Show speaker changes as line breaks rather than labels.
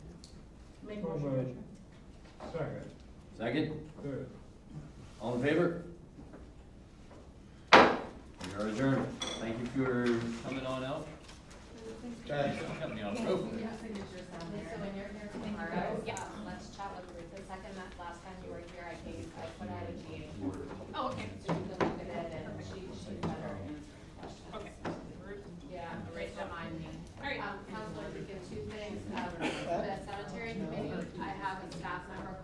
Made a
So
motion,
moved.
Commissioner.
Second,
Second,
third.
all in favor? We are adjourned. Thank you for coming on out.
Thank you.
Coming out.
Yeah, signatures down there.
Um, So when you're here
Thank you,
tomorrow,
guys. Oh,
um, Um,